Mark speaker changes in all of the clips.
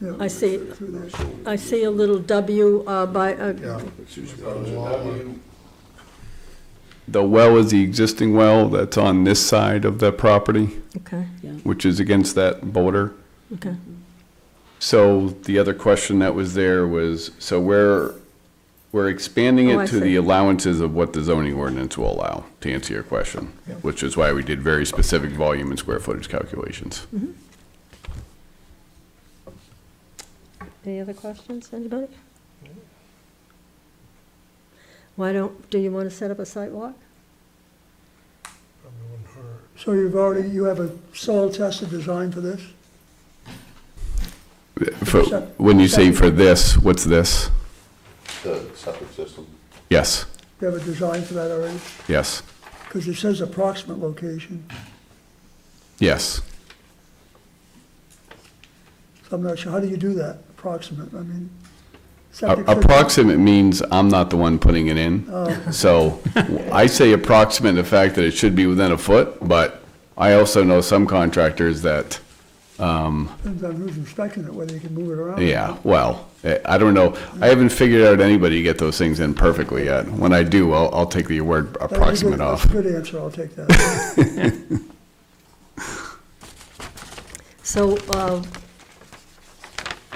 Speaker 1: Yeah.
Speaker 2: I see,
Speaker 1: Through there.
Speaker 2: I see a little W uh, by, uh,
Speaker 1: Yeah.
Speaker 3: The well is the existing well that's on this side of the property,
Speaker 2: okay,
Speaker 3: which is against that border.
Speaker 2: okay.
Speaker 3: So the other question that was there was, so we're, we're expanding
Speaker 2: Oh, I
Speaker 3: it to
Speaker 2: see.
Speaker 3: the allowances of what the zoning ordinance will allow, to answer your question, which is why we did very specific volume and square footage calculations.
Speaker 2: Any other questions, anybody? Why don't, do you want to set up a site walk?
Speaker 1: So you've already, you have a soil tested design for this?
Speaker 3: For- When you say for this, what's this?
Speaker 4: The septic system.
Speaker 3: Yes,
Speaker 1: You have a design for that already?
Speaker 3: yes,
Speaker 1: Because it says approximate location,
Speaker 3: yes.
Speaker 1: so I'm not sure, how do you do that, approximate, I mean?
Speaker 3: A-
Speaker 1: septic system-
Speaker 3: Approximate means I'm not the one putting it in. So I say approximate, in the fact that it should be within a foot, but I also know some contractors that,
Speaker 1: Depends on who's inspecting it, whether you can move it around.
Speaker 3: yeah, well, eh, I don't know. I haven't figured out anybody to get those things in perfectly yet. When I do, I'll, I'll take the word
Speaker 1: That was a good-
Speaker 3: approximate off.
Speaker 1: That's a good answer, I'll take that.
Speaker 2: So uh,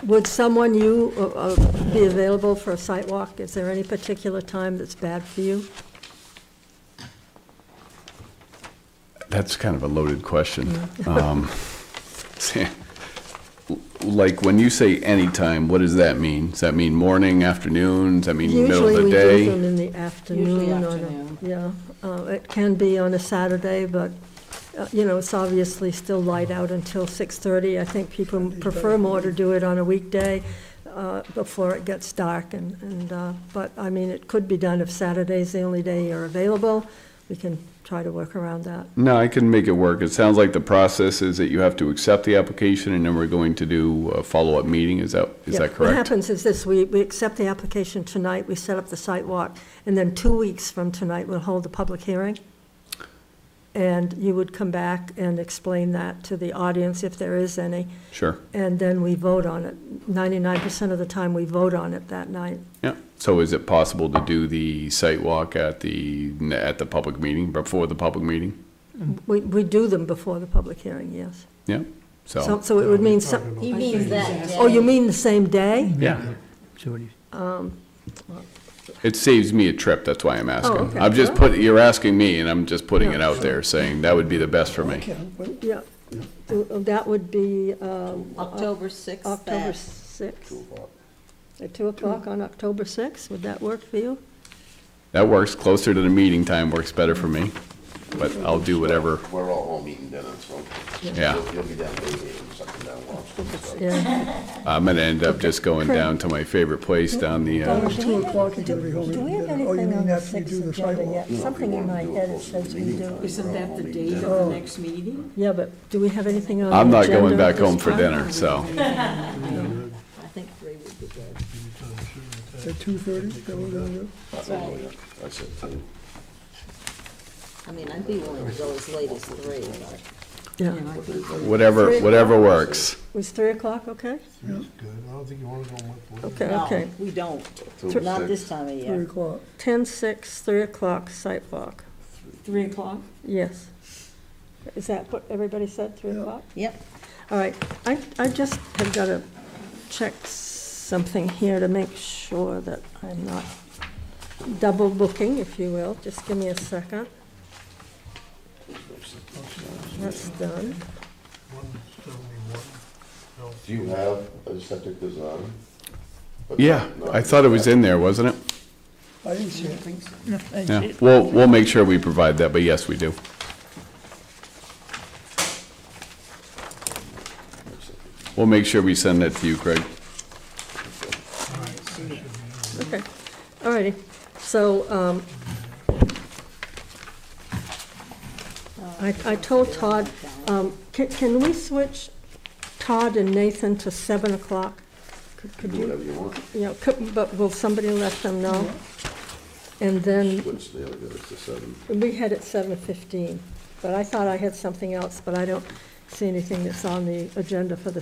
Speaker 2: would someone, you, uh, uh, be available for a site walk? Is there any particular time that's bad for you?
Speaker 3: That's kind of a loaded question. Um, Like, when you say anytime, what does that mean? Does that mean morning, afternoon? Does that mean middle of
Speaker 2: Usually
Speaker 3: the
Speaker 2: we
Speaker 3: day?
Speaker 2: do them in the afternoon.
Speaker 5: Usually
Speaker 2: on a-
Speaker 5: afternoon.
Speaker 2: Yeah, uh, it can be on a Saturday, but, uh, you know, it's obviously still light out until 6:30. I think people prefer more to do it on a weekday uh, before it gets dark and, and, uh, but, I mean, it could be done if Saturday's the only day you're available. We can try to work around that.
Speaker 3: No, I can make it work. It sounds like the process is that you have to accept the application, and then we're going to do a follow-up meeting. Is that, is
Speaker 2: Yeah.
Speaker 3: that
Speaker 2: What
Speaker 3: correct?
Speaker 2: happens is this, we, we accept the application tonight, we set up the site walk, and then two weeks from tonight, we'll hold the public hearing. And you would come back and explain that to the audience, if there is any,
Speaker 3: Sure.
Speaker 2: and then we vote on it. Ninety-nine percent of the time, we vote on it that night.
Speaker 3: Yeah. So is it possible to do the site walk at the, at the public meeting, before the public meeting?
Speaker 2: We, we do them before the public hearing, yes.
Speaker 3: Yeah,
Speaker 2: So,
Speaker 3: so,
Speaker 2: so it would mean some,
Speaker 5: He means that
Speaker 2: oh, you mean the same day?
Speaker 3: yeah.
Speaker 6: So what do you-
Speaker 3: It saves me a trip, that's why I'm
Speaker 2: Oh, okay.
Speaker 3: asking. I'm just putting, you're asking me, and I'm just putting it
Speaker 2: Yeah.
Speaker 3: out there, saying that would be the best for me.
Speaker 1: Okay, well,
Speaker 2: Yeah. That would be, um,
Speaker 5: October 6th.
Speaker 2: October
Speaker 5: that-
Speaker 2: sixth? At two o'clock on October sixth, would that work for you?
Speaker 3: That works, closer to the meeting time works better for me, but I'll do whatever,
Speaker 4: We're all home eating dinner, so.
Speaker 3: yeah.
Speaker 4: You'll- You'll be down there eating something down Washington. so.
Speaker 1: Uh,
Speaker 2: Yeah,
Speaker 3: I'm gonna end up just going down to my favorite place down the, uh,
Speaker 1: It's two o'clock, you gotta be home.
Speaker 2: Do we
Speaker 1: eating
Speaker 2: have
Speaker 1: dinner. Oh, you
Speaker 2: anything
Speaker 1: mean
Speaker 2: on the
Speaker 1: after you do
Speaker 2: sixth
Speaker 1: the
Speaker 2: agenda
Speaker 1: sidewalk?
Speaker 2: yet? Something in my head it says we do.
Speaker 5: Isn't that the date of the next meeting?
Speaker 2: Yeah, but do we have anything on the
Speaker 3: I'm
Speaker 2: agenda?
Speaker 3: not going back home for
Speaker 5: Probably
Speaker 3: dinner, so.
Speaker 5: the meeting. I think three would be good.
Speaker 1: At two thirty, that we're gonna do?
Speaker 5: That's right.
Speaker 4: I said two.
Speaker 5: I mean, I'd be willing to go as late as three, but,
Speaker 2: Yeah,
Speaker 5: you know, I think
Speaker 3: Whatever, whatever works.
Speaker 2: was three o'clock okay? Okay, okay.
Speaker 5: No, we don't.
Speaker 4: Two,
Speaker 5: Not
Speaker 4: six.
Speaker 5: this time of
Speaker 1: Three
Speaker 5: year.
Speaker 1: o'clock.
Speaker 2: Ten, six, three o'clock, site walk,
Speaker 5: Three o'clock?
Speaker 2: yes. Is that what everybody said, three
Speaker 1: Yeah.
Speaker 2: o'clock?
Speaker 5: Yep.
Speaker 2: All right, I, I just have got to check something here to make sure that I'm not double booking, if you will. Just give me a second. That's done.
Speaker 4: Do you have a septic design? But
Speaker 3: Yeah,
Speaker 4: not-
Speaker 3: I thought it was in there, wasn't it?
Speaker 1: I didn't see it.
Speaker 3: Yeah, we'll, we'll make sure we provide that, but yes, we do. We'll make sure we send that to you, Craig.
Speaker 2: Okay, all righty. So, um, I, I told Todd, um, can, can we switch Todd and Nathan to seven o'clock? Could- Could
Speaker 4: Do
Speaker 2: you?
Speaker 4: whatever you want,
Speaker 2: you know, could- but will somebody let them know? And then,
Speaker 4: which the other goes to seven.
Speaker 2: we had it seven fifteen, but I thought I had something else, but I don't see anything that's on the agenda for the